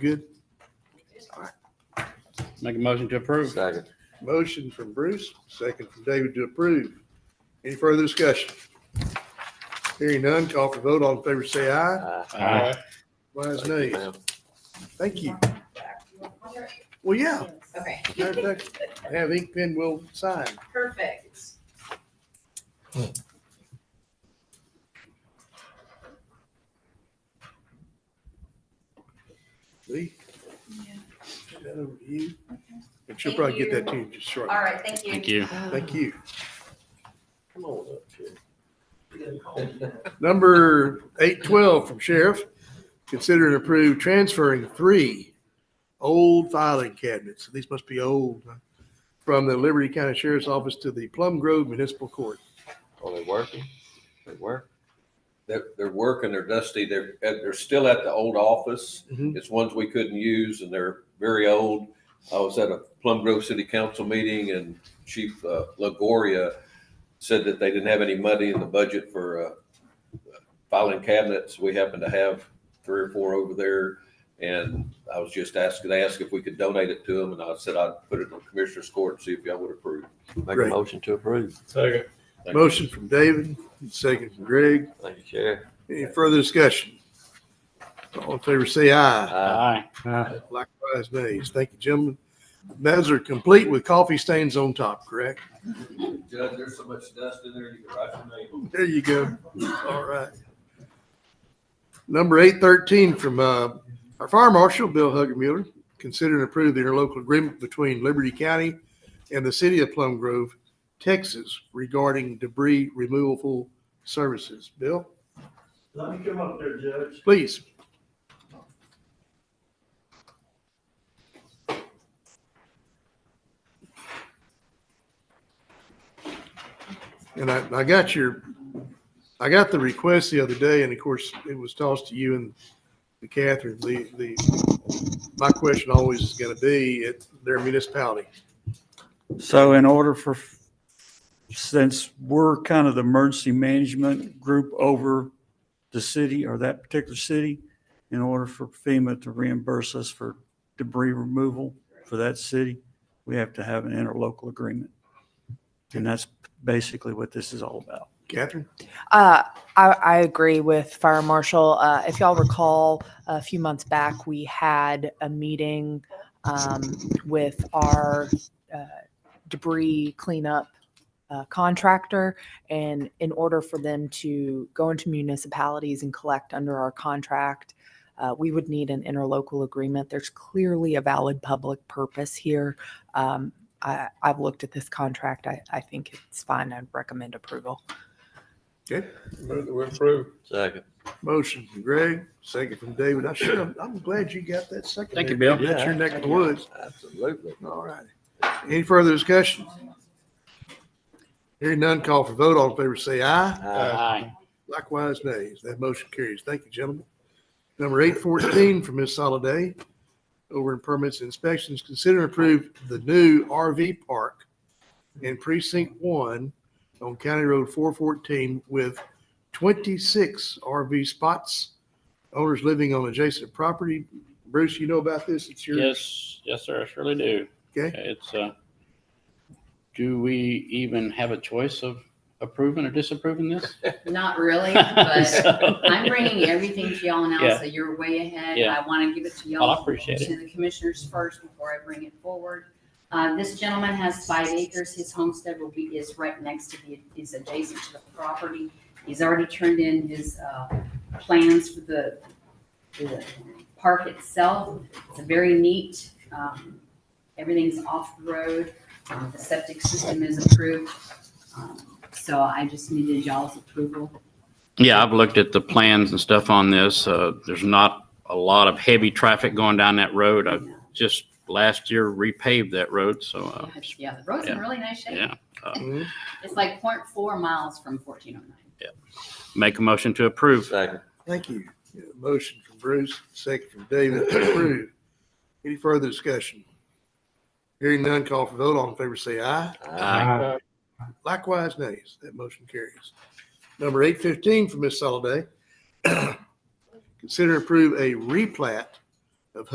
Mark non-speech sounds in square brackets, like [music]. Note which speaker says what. Speaker 1: good?
Speaker 2: Make a motion to approve.
Speaker 3: Second.
Speaker 1: Motion from Bruce, second from David to approve. Any further discussion? Hearing none, call for vote. All in favor, say aye.
Speaker 2: Aye.
Speaker 1: Likewise, nay.
Speaker 3: Ma'am.
Speaker 1: Thank you. Well, yeah.
Speaker 4: Okay,
Speaker 1: matter of fact, Have ink pen, we'll sign.
Speaker 4: perfect.
Speaker 1: Lee?
Speaker 4: Yeah.
Speaker 1: Turn that over to you.
Speaker 4: Okay.
Speaker 1: And she'll
Speaker 4: Thank
Speaker 1: probably get that
Speaker 4: you.
Speaker 1: to you just
Speaker 4: All
Speaker 1: shortly.
Speaker 4: right, thank you.
Speaker 2: Thank you.
Speaker 1: Thank you.
Speaker 3: Come on up here.
Speaker 1: Number eight twelve from Sheriff, consider and approve transferring three old filing cabinets, these must be old, huh? from the Liberty County Sheriff's Office to the Plum Grove Municipal Court.
Speaker 3: Are Oh, they working? They work? They're, they're working, they're dusty, they're, and they're still at the old office.
Speaker 1: Mhm.
Speaker 3: It's ones we couldn't use and they're very old. I was at a Plum Grove City Council meeting and Chief uh, Lagoria said that they didn't have any money in the budget for uh, filing cabinets. We happen to have three or four over there. And I was just asking, they asked if we could donate it to them and I said I'd put it in the commissioner's court and see if y'all would approve.
Speaker 1: a
Speaker 3: Make
Speaker 1: Great.
Speaker 3: motion to approve.
Speaker 5: Second.
Speaker 3: Thank you.
Speaker 1: Motion from David, second from Greg,
Speaker 3: Thank you, Chair.
Speaker 1: [laughs] any further discussion? All in favor, say aye.
Speaker 2: Aye.
Speaker 1: Likewise, nays. Thank you, gentlemen. Those are complete with coffee stains on top, correct?
Speaker 3: Judge, there's so much dust in there, you can write your name.
Speaker 1: There you go. All right. Number eight thirteen from, uh, our fire marshal, Bill Huggermuller, consider and approve the interlocal agreement between Liberty County and the city of Plum Grove, Texas regarding debris removal services. Bill,
Speaker 5: Let me come up there, Judge.
Speaker 1: please. And I, I got your, I got the request the other day, and of course, it was tossed to you and to Catherine. The, the, my question always is gonna be at their municipality.
Speaker 6: So in order for, since we're kind of the emergency management group over the city or that particular city, in order for FEMA to reimburse us for debris removal for that city, we have to have an interlocal agreement. And that's basically what this is all about.
Speaker 1: Catherine?
Speaker 7: Uh, I, I agree with Fire Marshal. Uh, if y'all recall, a few months back, we had a meeting um, with our uh, debris cleanup uh, contractor. And in order for them to go into municipalities and collect under our contract, uh, we would need an interlocal agreement. There's clearly a valid public purpose here. Um, I, I've looked at this contract. I, I think it's fine. I'd recommend approval.
Speaker 1: Okay.
Speaker 5: Move that we approve.
Speaker 3: Second.
Speaker 1: Motion from Greg, second from David. I should have, I'm glad you got that second.
Speaker 2: Thank you,
Speaker 1: there.
Speaker 2: Bill.
Speaker 1: That's your neck of the woods.
Speaker 3: Absolutely.
Speaker 1: All right. Any further discussion? Hearing none, call for vote. All in favor, say aye.
Speaker 2: Aye.
Speaker 1: Likewise, nays. That motion carries. Thank you, gentlemen. Number eight fourteen from Ms. Soliday, over in permits and inspections, consider and approve the new RV park in precinct one on County Road four fourteen with twenty-six RV spots. Owners living on adjacent property. Bruce, you know about this? It's your.
Speaker 2: Yes, yes, sir, I surely do.
Speaker 1: Okay.
Speaker 2: It's, uh, do we even have a choice of approving or disapproving [laughs] this?
Speaker 4: Not really, but [laughs]
Speaker 2: [laughs] So-
Speaker 4: I'm bringing everything to y'all now,
Speaker 2: Yeah.
Speaker 4: so you're way ahead.
Speaker 2: Yeah.
Speaker 4: I want to give it to
Speaker 2: Well, I
Speaker 4: y'all,
Speaker 2: appreciate it.
Speaker 4: to the commissioners first before I bring it forward. Uh, this gentleman has five acres. His homestead will be, is right next to the, is adjacent to the property. He's already turned in his, uh, plans for the, the park itself. It's a very neat, um, everything's off the road. Um, the septic system is approved. Um, So I just needed y'all's approval
Speaker 2: Yeah, I've looked at the plans and stuff on this. Uh, there's not a lot of heavy traffic going down that road. I just last year repaved that road, so, uh,
Speaker 4: Yeah, Yeah, the road's in
Speaker 2: yeah.
Speaker 4: really nice shape.
Speaker 2: yeah.
Speaker 1: Mhm.
Speaker 4: It's like 0.4 miles from fourteen oh nine.
Speaker 2: Make a motion to approve.
Speaker 3: Second.
Speaker 1: Thank you. Yeah, Motion from Bruce, second from David, to approve. Any further discussion? Hearing none, call for vote. All in favor, say aye.
Speaker 2: Aye.
Speaker 1: Likewise, nays. That motion carries. [clears throat] Number eight fifteen from Ms. Soliday. Consider and approve a replat